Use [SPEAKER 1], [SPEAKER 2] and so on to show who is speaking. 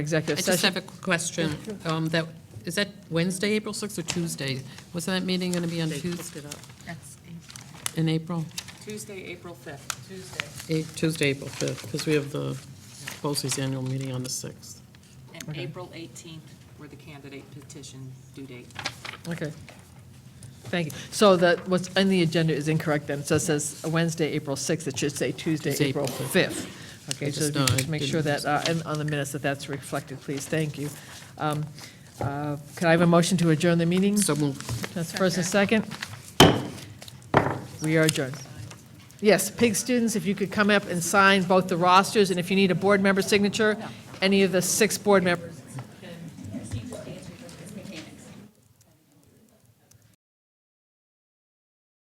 [SPEAKER 1] executive
[SPEAKER 2] I just
[SPEAKER 1] session.
[SPEAKER 2] have a question. Um, That, is that Wednesday, April 6th, or Tuesday? Wasn't that meeting going to be on Tuesday? In April?
[SPEAKER 3] Tuesday, April 5th. Tuesday.
[SPEAKER 2] A- Tuesday, April 5th, because we have the BOSI's annual meeting on the 6th.
[SPEAKER 3] And April 18th were the candidate petition due date.
[SPEAKER 1] Okay. Thank you. So that, what's in the agenda is incorrect then. So it says Wednesday, April 6th, it should say Tuesday,
[SPEAKER 2] It's
[SPEAKER 1] April
[SPEAKER 2] April
[SPEAKER 1] 5th. Okay,
[SPEAKER 2] I
[SPEAKER 1] so
[SPEAKER 2] just- no, I
[SPEAKER 1] just make sure
[SPEAKER 2] didn't-
[SPEAKER 1] that, uh, and on the minutes, that that's reflected, please. Thank you. Um, uh, Could I have a motion to adjourn the meeting?
[SPEAKER 2] So moved.
[SPEAKER 1] That's first and second. We are adjourned. Yes, PIG students, if you could come up and sign both the rosters, and if you need a board member signature, any of the six board members.